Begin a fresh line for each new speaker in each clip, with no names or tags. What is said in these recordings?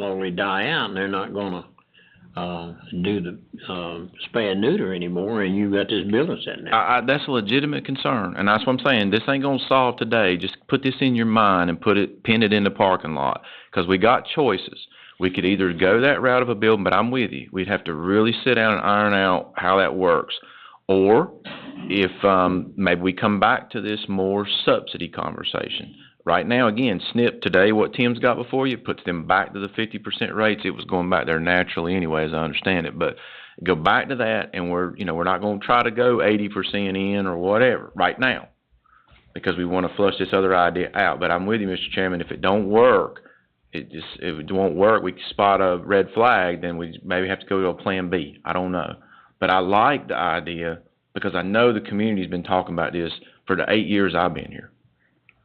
slowly die out and they're not gonna, uh, do the, um, spay and neuter anymore and you've got this building sitting there.
I, I, that's a legitimate concern, and that's what I'm saying. This ain't gonna solve today. Just put this in your mind and put it, pin it in the parking lot, because we got choices. We could either go that route of a building, but I'm with you. We'd have to really sit down and iron out how that works. Or if, um, maybe we come back to this more subsidy conversation. Right now, again, SNP today, what Tim's got before you, puts them back to the fifty percent rates. It was going back there naturally anyway, as I understand it, but go back to that and we're, you know, we're not gonna try to go eighty percent in or whatever right now. Because we wanna flush this other idea out, but I'm with you, Mr. Chairman, if it don't work, it just, if it won't work, we spot a red flag, then we maybe have to go to a plan B, I don't know. But I like the idea because I know the community's been talking about this for the eight years I've been here.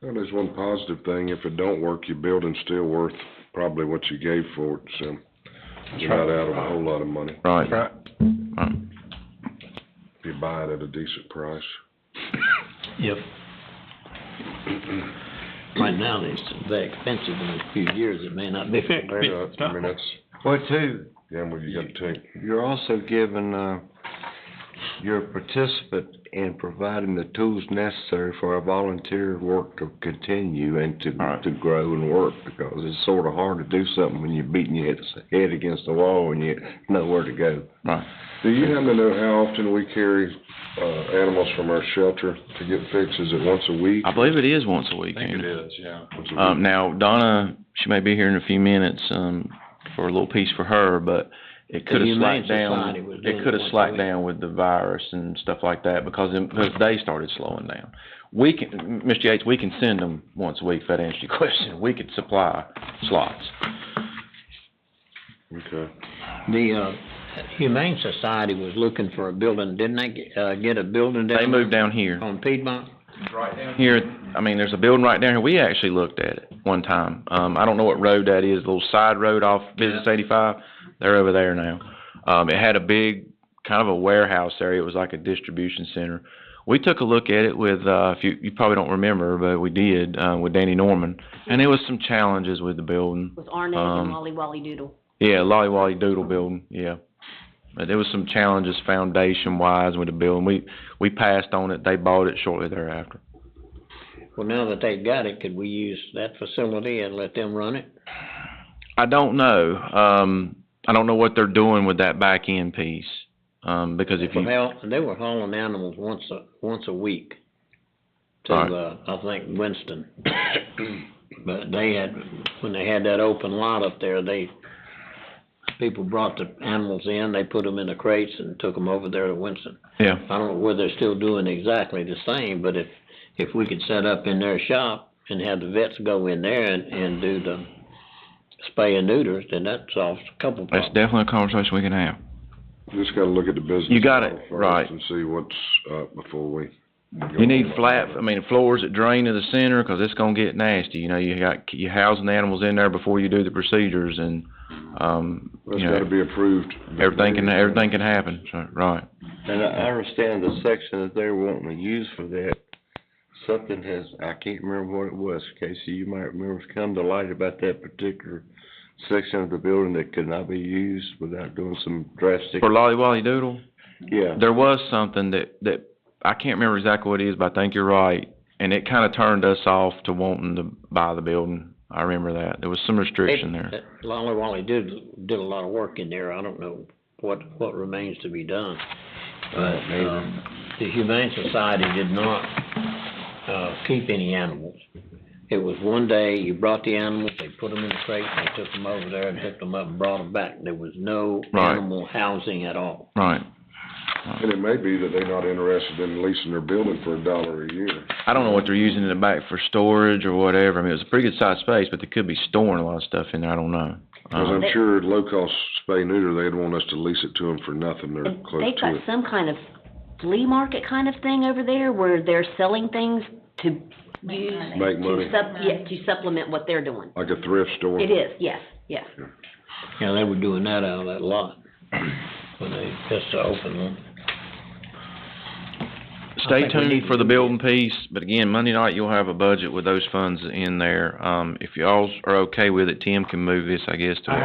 Well, there's one positive thing, if it don't work, your building's still worth probably what you gave for it, so you're not out of a whole lot of money,
Right.
Right.
Right.
if you buy it at a decent price.
Yep. Right now, it's very expensive in a few years, it may not be very uh,
May not, I mean, that's,
Well, too,
gamble you gotta take.
you're also giving, uh, you're a participant in providing the tools necessary for our volunteer work to continue and to,
All right.
to grow and work, because it's sort of hard to do something when you're beating your head, head against the wall and you know where to go.
Do you happen to know how often we carry, uh, animals from our shelter to get fixed? Is it once a week?
I believe it is once a week.
think
ain't
it
it?
is, yeah.
Once a
Um,
week?
now Donna, she may be here in a few minutes, um, for a little piece for her, but it could have
Humane
slacked down.
Society was doing
It could
it once
have
a
slacked
week.
down with the virus and stuff like that because, it- because they started slowing down. We can, Mr. Yates, we can send them once a week, if that answers your question. We could supply slots.
Okay.
The, uh, Humane Society was looking for a building, didn't they, get- uh, get a building down?
They moved down here.
On Piedmont?
Right down
Here, I mean, there's a building right down here. We actually looked at it one time. Um, I don't know what road that is, a little side road off Business eighty-five. They're over there now. Um, it had a big, kind of a warehouse area. It was like a distribution center. We took a look at it with, uh, if you, you probably don't remember, but we did, uh, with Danny Norman. And there was some challenges with the building.
with Arnaz
Um,
and Wally Wally Doodle.
Yeah, Lolly Wally Doodle building, yeah. But there was some challenges foundation wise with the building. We, we passed on it. They bought it shortly thereafter.
Well, now that they've got it, could we use that facility and let them run it?
I don't know. Um, I don't know what they're doing with that back end piece. Um, because if you,
Well, they were hauling animals once a, once a week to,
Right.
uh, I think Winston. But they had, when they had that open lot up there, they, people brought the animals in, they put them in the crates and took them over there to Winston.
yeah,
I don't know whether they're still doing exactly the same, but if, if we could set up in their shop and have the vets go in there and, and do the spay and neuters, then that solves a couple
that's
problems.
definitely a conversation we can have.
Just gotta look at the business.
You got it,
model first
right.
And see what's, up before we.
You need flat, I mean, floors that drain to the center, cause it's gonna get nasty. You know, you got, you housing the animals in there before you do the procedures and, um,
That's
you
gotta
know,
be approved.
everything can, everything can happen. So, right.
And I I understand the section that they're wanting to use for that, something has, I can't remember what it was, Casey, you might remember, it's come to light about that particular section of the building that could not be used without doing some drastic,
For Lolly Wally Doodle,
yeah.
there was something that, that, I can't remember exactly what it is, but I think you're right. And it kinda turned us off to wanting to buy the building. I remember that. There was some restriction there.
That uh, Lolly Wally did, did a lot of work in there, I don't know what, what remains to be done. But, um, the Humane Society did not, uh, keep any animals. It was one day, you brought the animals, they put them in the crate, and they took them over there and picked them up and brought them back. There was no
Right.
animal housing at all.
Right.
And it may be that they're not interested in leasing their building for a dollar a year.
I don't know what they're using in the back for storage or whatever. I mean, it was a pretty good sized space, but they could be storing a lot of stuff in there. I don't know.
Cause
Um,
I'm sure low-cost spay neuter, they'd want us to lease it to them for nothing, they're
And
close
They've
to
got
it.
some kind of flea market kind of thing over there where they're selling things to use.
Make money,
To sup- yeah, to supplement what they're doing.
like a thrift store.
It is, yes, yes.
Yeah, they were doing that out of that lot when they just opened one. I
stay
think we need
tuned
to
for
do
the
that.
building piece, but again, Monday night you'll have a budget with those funds in there. Um, if y'all are okay with it, Tim can move this, I guess, to. a-